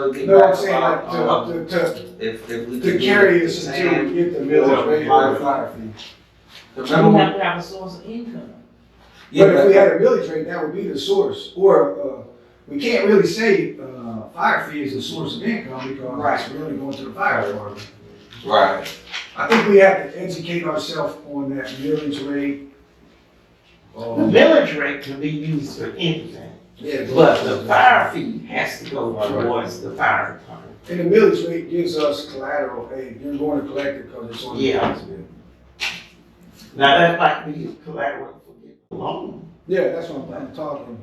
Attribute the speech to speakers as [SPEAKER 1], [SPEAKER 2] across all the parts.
[SPEAKER 1] looking
[SPEAKER 2] No, I'm
[SPEAKER 1] back
[SPEAKER 2] saying like
[SPEAKER 1] about, um,
[SPEAKER 2] to, to,
[SPEAKER 1] if, if we
[SPEAKER 2] to, to
[SPEAKER 1] could
[SPEAKER 2] carry
[SPEAKER 1] get
[SPEAKER 2] this
[SPEAKER 1] the
[SPEAKER 2] until
[SPEAKER 1] same-
[SPEAKER 2] we get the millage rate or the fire fee.
[SPEAKER 1] the
[SPEAKER 3] You
[SPEAKER 1] minimum,
[SPEAKER 3] have to have a source of income.
[SPEAKER 1] yeah,
[SPEAKER 2] But if we
[SPEAKER 1] that-
[SPEAKER 2] had a millage rate, that would be the source, or, uh, we can't really say, uh, fire fee is a source of income because it's really going to the fire department.
[SPEAKER 1] right,
[SPEAKER 2] I think we have to educate ourselves on that millage rate.
[SPEAKER 3] The
[SPEAKER 2] um,
[SPEAKER 3] village rate can be used for anything,
[SPEAKER 2] yeah,
[SPEAKER 3] but the fire fee has to go towards the fire department.
[SPEAKER 2] And the millage rate gives us collateral, hey, you're going to collect it because it's on. the
[SPEAKER 3] Yeah.
[SPEAKER 2] tax bill.
[SPEAKER 3] Now, that might be collateral for the loan.
[SPEAKER 2] Yeah, that's what I'm- I'm talking,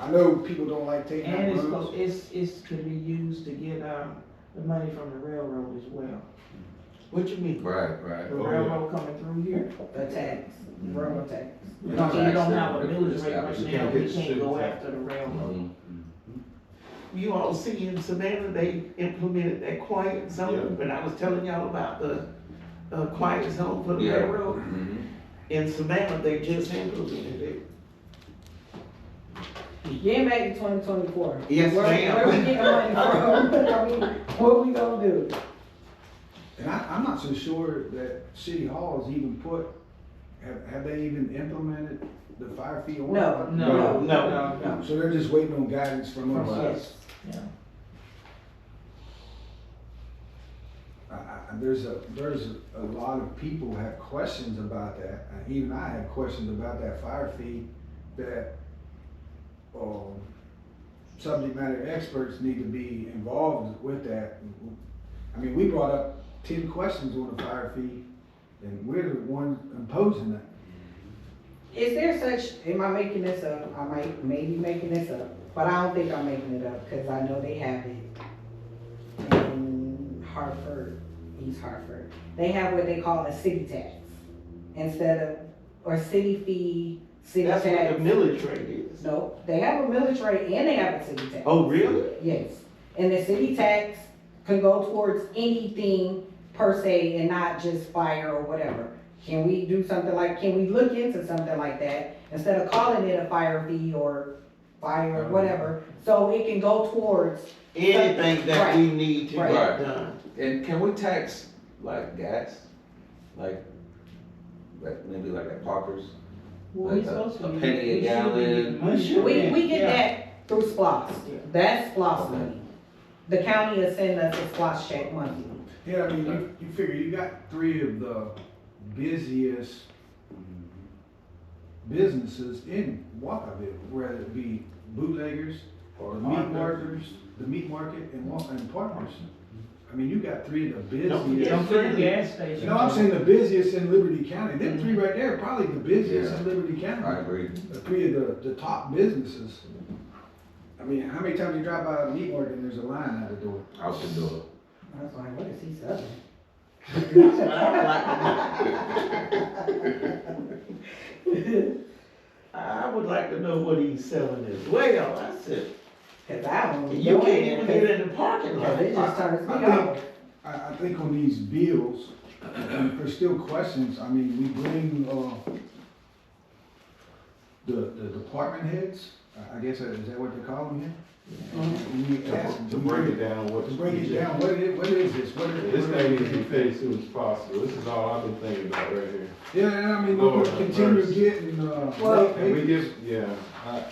[SPEAKER 2] I know people don't like taking.
[SPEAKER 4] And it's,
[SPEAKER 2] loans.
[SPEAKER 4] go- it's, it's to be used to get, um, the money from the railroad as well. What you mean?
[SPEAKER 1] right,
[SPEAKER 4] The
[SPEAKER 1] right.
[SPEAKER 4] railroad coming through here,
[SPEAKER 5] the tax, railroad tax.
[SPEAKER 4] you know, so you don't have a millage rate right now, we can't go after the
[SPEAKER 1] Mhm.
[SPEAKER 4] railroad.
[SPEAKER 3] You all see in Savannah, they implemented that quiet zone, when I was telling y'all about the, uh, quiet zone for the
[SPEAKER 1] Yeah.
[SPEAKER 3] railroad.
[SPEAKER 1] Mhm.
[SPEAKER 3] In Savannah, they just implemented it.
[SPEAKER 5] Getting back to twenty twenty-four.
[SPEAKER 3] Yes, ma'am.
[SPEAKER 5] Where we getting money from? I mean, What we gonna do?
[SPEAKER 2] And I, I'm not so sure that City Hall has even put, have, have they even implemented the fire fee on?
[SPEAKER 5] No,
[SPEAKER 4] No,
[SPEAKER 3] No.
[SPEAKER 4] no, no.
[SPEAKER 2] So they're just waiting on guidance from
[SPEAKER 4] From
[SPEAKER 2] us.
[SPEAKER 4] us.
[SPEAKER 2] I, I, there's a, there's a lot of people have questions about that, Uh, even I have questions about that fire fee that, um, subject matter experts need to be involved with that. I mean, we brought up ten questions on the fire fee, and we're the ones imposing that.
[SPEAKER 5] Is there such, am I making this up? I might, maybe making this up, but I don't think I'm making it up, cause I know they have it in Hartford, East Hartford. They have what they call a city tax instead of, or city fee, city
[SPEAKER 3] That's what the
[SPEAKER 5] tax.
[SPEAKER 3] millage rate is.
[SPEAKER 5] No, they have a millage rate and they have a city tax.
[SPEAKER 3] Oh, really?
[SPEAKER 5] Yes, and the city tax can go towards anything per se and not just fire or whatever. Can we do something like, can we look into something like that instead of calling it a fire fee or fire, whatever? So it can go towards,
[SPEAKER 3] anything that we need to
[SPEAKER 5] Right.
[SPEAKER 3] get done.
[SPEAKER 1] And can we tax like gas, like, like maybe like at Parker's?
[SPEAKER 4] Well, we
[SPEAKER 1] Like a-
[SPEAKER 4] supposed to
[SPEAKER 1] a
[SPEAKER 4] be-
[SPEAKER 1] penny a
[SPEAKER 4] we should be
[SPEAKER 1] gallon.
[SPEAKER 4] getting money from
[SPEAKER 5] we, we get
[SPEAKER 4] Yeah.
[SPEAKER 5] that through SPOS. That's SPOS money. The county is sending us a SPOS check money.
[SPEAKER 2] Yeah, I mean, you, you figure you got three of the busiest businesses in Walkerville, whether it be bootleggers, the meat marketers, the meat market and Wa- and partners. I mean, you got three of the
[SPEAKER 3] Don't forget
[SPEAKER 2] busiest.
[SPEAKER 4] Don't forget the gas station.
[SPEAKER 2] No, I'm saying the busiest in Liberty County. Them three right there, are probably the busiest in Liberty
[SPEAKER 1] I
[SPEAKER 2] County.
[SPEAKER 1] agree.
[SPEAKER 2] The three of the, the top businesses. I mean, how many times you drive by a meat market and there's a line out the door?
[SPEAKER 1] I was do it.
[SPEAKER 5] I was like, what is he selling?
[SPEAKER 3] That's what I would like to know. I would like to know what he's selling as well. I said,
[SPEAKER 5] Cause I don't.
[SPEAKER 3] you
[SPEAKER 5] know
[SPEAKER 3] can't even
[SPEAKER 5] anything.
[SPEAKER 3] get in the parking
[SPEAKER 5] Cause
[SPEAKER 3] lot.
[SPEAKER 5] it just turns
[SPEAKER 2] I- I
[SPEAKER 5] me
[SPEAKER 2] think-
[SPEAKER 5] off.
[SPEAKER 2] I, I think on these bills, and there's still questions, I mean, we bring, uh, the, the department heads, I, I guess, uh, is that what they call them
[SPEAKER 5] Mm-hmm.
[SPEAKER 2] here? We ask them
[SPEAKER 6] To break it down, what.
[SPEAKER 2] To break it down, what is, what is this, what is?
[SPEAKER 6] This thing needs to be fixed soon as possible, this is all I've been thinking about right here.
[SPEAKER 2] Yeah, and I mean, we
[SPEAKER 6] Lord,
[SPEAKER 2] could continue
[SPEAKER 6] mercy.
[SPEAKER 2] getting, uh.
[SPEAKER 5] Well-
[SPEAKER 2] late
[SPEAKER 6] And we
[SPEAKER 2] payments.
[SPEAKER 6] give, yeah, I,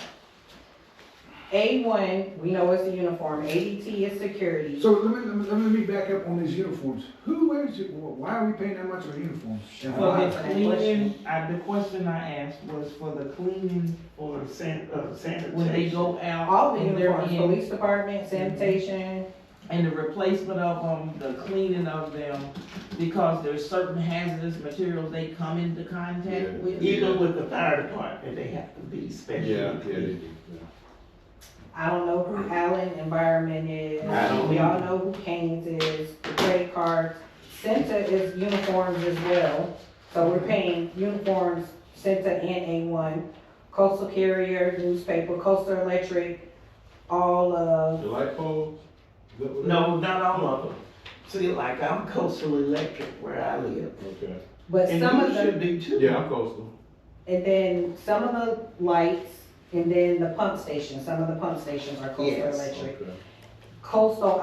[SPEAKER 5] A one, we know it's a uniform, ADT is security.
[SPEAKER 2] So let me, let me, let me back up on these uniforms, who wears it, why are we paying that much for uniforms? And
[SPEAKER 4] For
[SPEAKER 2] why?
[SPEAKER 4] the cleaning, I, the question I asked was for the cleaning,
[SPEAKER 3] Or san- uh,
[SPEAKER 4] when they
[SPEAKER 3] sanitation.
[SPEAKER 4] go out.
[SPEAKER 5] All the
[SPEAKER 4] and they're
[SPEAKER 5] uniforms,
[SPEAKER 4] in-
[SPEAKER 5] police department, sanitation,
[SPEAKER 4] And the replacement of them, the cleaning of them, because there's certain hazardous materials they come into
[SPEAKER 6] Yeah.
[SPEAKER 4] contact with.
[SPEAKER 3] Even with the fire department, they have to be
[SPEAKER 6] yeah,
[SPEAKER 3] special.
[SPEAKER 6] yeah, they do.
[SPEAKER 5] I don't know who Allen Environment is,
[SPEAKER 3] I don't
[SPEAKER 5] we all know who Kane's is, the credit cards. Centa is uniforms as well, so we're paying uniforms, Centa and A one, coastal carrier, newspaper, coastal electric, all of,
[SPEAKER 6] The light poles? Is that what that-
[SPEAKER 3] No, not all of them. See, like I'm coastal electric where I live.
[SPEAKER 6] Okay,
[SPEAKER 5] but
[SPEAKER 3] And
[SPEAKER 5] some of
[SPEAKER 3] you
[SPEAKER 5] the.
[SPEAKER 3] should be too.
[SPEAKER 6] yeah, I'm coastal,
[SPEAKER 5] And then some of the lights, and then the pump station, some of the pump stations are coastal
[SPEAKER 3] Yes.
[SPEAKER 5] electric.
[SPEAKER 6] okay.
[SPEAKER 5] coastal